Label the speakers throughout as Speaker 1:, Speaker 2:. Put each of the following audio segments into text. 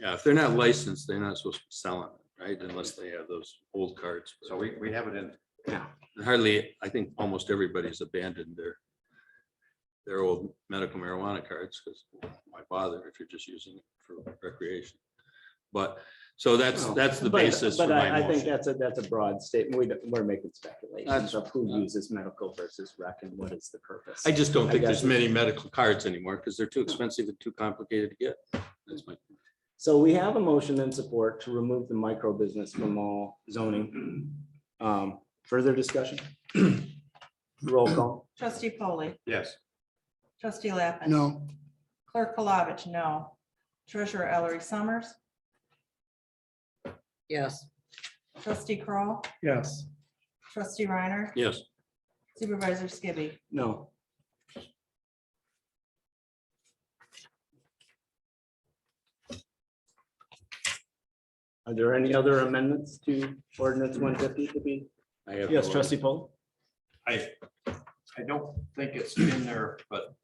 Speaker 1: Yeah, if they're not licensed, they're not supposed to be selling, it, right? Unless they have those old cards.
Speaker 2: So we, we have it in,
Speaker 1: Hardly, I think almost everybody's abandoned their their old medical marijuana cards because why bother if you're just using it for recreation? But, so that's,
Speaker 2: Well,
Speaker 1: that's the
Speaker 3: But-
Speaker 1: basis for
Speaker 3: But I,
Speaker 1: my
Speaker 3: I think
Speaker 1: motion.
Speaker 3: that's a, that's a broad statement. We, don't- we're making
Speaker 1: That's-
Speaker 3: speculations of who uses medical versus rec and what is the purpose.
Speaker 1: I just don't
Speaker 3: I
Speaker 1: think
Speaker 3: guess
Speaker 1: there's many medical cards anymore because they're too expensive and too complicated to get. That's my,
Speaker 3: So we have a motion and support to remove the micro business from all zoning. Um, Further discussion? Roll call.
Speaker 4: Trustee Polly,
Speaker 2: yes,
Speaker 4: trustee Lappin.
Speaker 5: no,
Speaker 4: Clerk Palovich, no. Treasurer Ellery Summers,
Speaker 6: yes,
Speaker 4: trustee Kroll,
Speaker 5: yes,
Speaker 4: trustee Reiner,
Speaker 1: yes,
Speaker 4: supervisor Skibby.
Speaker 3: No. Are there any other amendments to ordinance one fifty to be?
Speaker 1: I have.
Speaker 3: Yes,
Speaker 1: no-
Speaker 3: trustee Paul?
Speaker 2: I, I don't think it's in there, but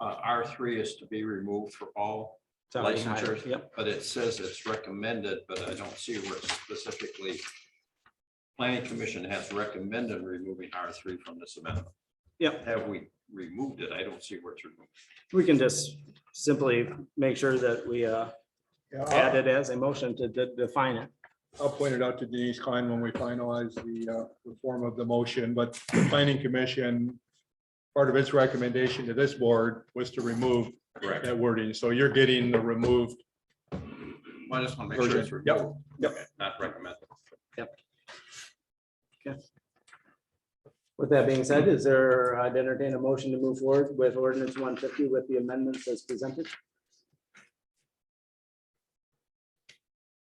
Speaker 2: uh, R three is to be removed for all. Licensure.
Speaker 3: Yep.
Speaker 2: But it says it's recommended, but I don't see where it specifically planning commission has recommended removing R three from this amendment.
Speaker 3: Yep.
Speaker 2: Have we removed it? I don't see where it's removed.
Speaker 3: We can just simply make sure that we uh,
Speaker 5: yeah,
Speaker 3: add
Speaker 5: I'll-
Speaker 3: it as a motion to de- define it.
Speaker 5: I'll point it out to Denise Klein when we finalize the, uh, the form of the motion, but the planning commission. Part of its recommendation to this board was to remove
Speaker 2: Correct.
Speaker 5: that wording, so you're getting the removed,
Speaker 2: I just want to make sure it's
Speaker 5: Version. Yep,
Speaker 2: removed.
Speaker 3: yep.
Speaker 2: Okay, Not recommended.
Speaker 3: With that being said, is there, I'd entertain a motion to move forward with ordinance one fifty with the amendments as presented.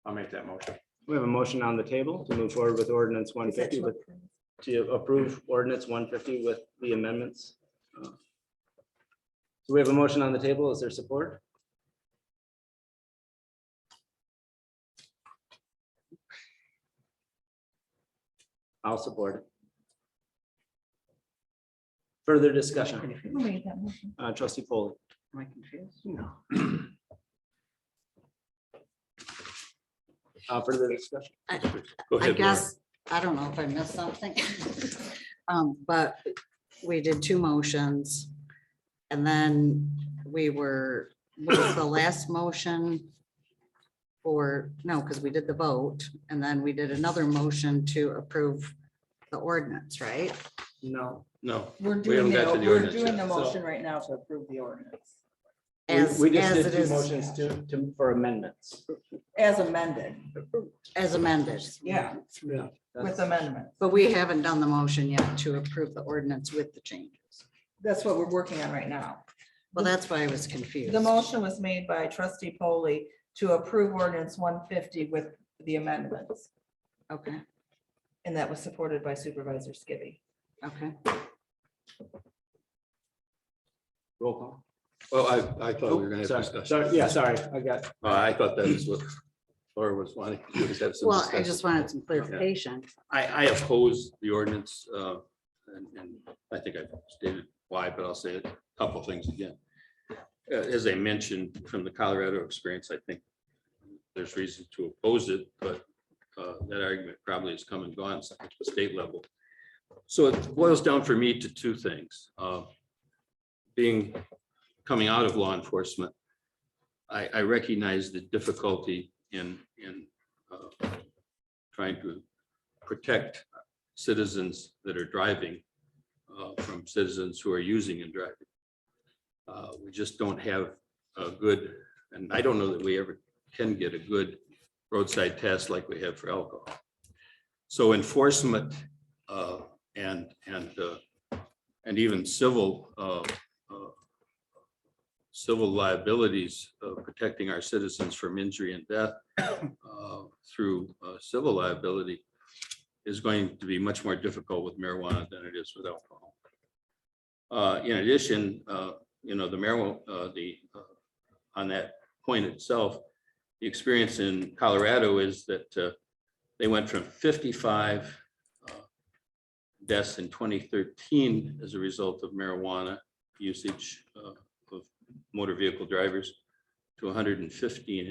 Speaker 2: I'll make that motion.
Speaker 3: We have a motion on the table to move forward with ordinance one fifty with, to approve ordinance one fifty with the amendments. So we have a motion on the table. Is there support? I'll support. it. Further discussion,
Speaker 4: Who made that motion?
Speaker 3: uh, trustee Foley.
Speaker 6: am I confused?
Speaker 3: No. Uh, further discussion.
Speaker 6: I
Speaker 1: Go
Speaker 6: I
Speaker 1: ahead, Laura.
Speaker 6: guess, I don't know if I missed something. Um, but we did two motions. And then we were, was the last motion? Or, no, because we did the vote and then we did another motion to approve the ordinance, right?
Speaker 3: No.
Speaker 1: No,
Speaker 4: We're
Speaker 1: haven't
Speaker 4: doing,
Speaker 1: got to
Speaker 4: it-
Speaker 1: the
Speaker 4: we're
Speaker 1: ordinance
Speaker 4: doing the
Speaker 1: yet,
Speaker 3: so-
Speaker 4: motion right now to approve the ordinance
Speaker 3: We-
Speaker 6: As,
Speaker 3: We just did
Speaker 6: as it
Speaker 3: two
Speaker 6: is,
Speaker 3: motions to, to, for amendments.
Speaker 4: as amended.
Speaker 6: as amended.
Speaker 4: Yeah,
Speaker 3: Yeah.
Speaker 4: with amendment.
Speaker 6: But we haven't done the motion yet to approve the ordinance with the changes.
Speaker 4: That's what we're working on right now.
Speaker 6: Well, that's why I was confused.
Speaker 4: The motion was made by trustee Polly to approve ordinance one fifty with the amendments.
Speaker 6: Okay,
Speaker 4: And that was supported by supervisor Skibby.
Speaker 6: okay.
Speaker 3: Roll call.
Speaker 1: well, I, I thought we were gonna have
Speaker 3: Oh, Sorry,
Speaker 1: discussion.
Speaker 3: Sorry, yeah, sorry, I got,
Speaker 1: Oh, I thought that was what Laura was wanting. to do, is have some
Speaker 6: Well, I
Speaker 1: discussion.
Speaker 6: just wanted some clarification.
Speaker 1: I, I oppose the ordinance, uh, and, and I think I stated why, but I'll say a couple things again. Uh, As I mentioned, from the Colorado experience, I think there's reason to oppose it, but uh, that argument probably has come and gone at the state level. So it boils down for me to two things. Uh, Being, coming out of law enforcement, I, I recognize the difficulty in, in uh, trying to protect citizens that are driving uh, from citizens who are using and driving. Uh, We just don't have a good, and I don't know that we ever can get a good roadside test like we have for alcohol. So enforcement uh, and, and, uh, and even civil uh, uh, civil liabilities, uh, protecting our citizens from injury and death uh, through uh, civil liability is going to be much more difficult with marijuana than it is with alcohol. Uh, in addition, uh, you know, the marijuana, uh, the, uh, on that point itself, the experience in Colorado is that, uh, they went from fifty-five uh, deaths in twenty thirteen as a result of marijuana usage, uh, of motor vehicle drivers to hundred and fifteen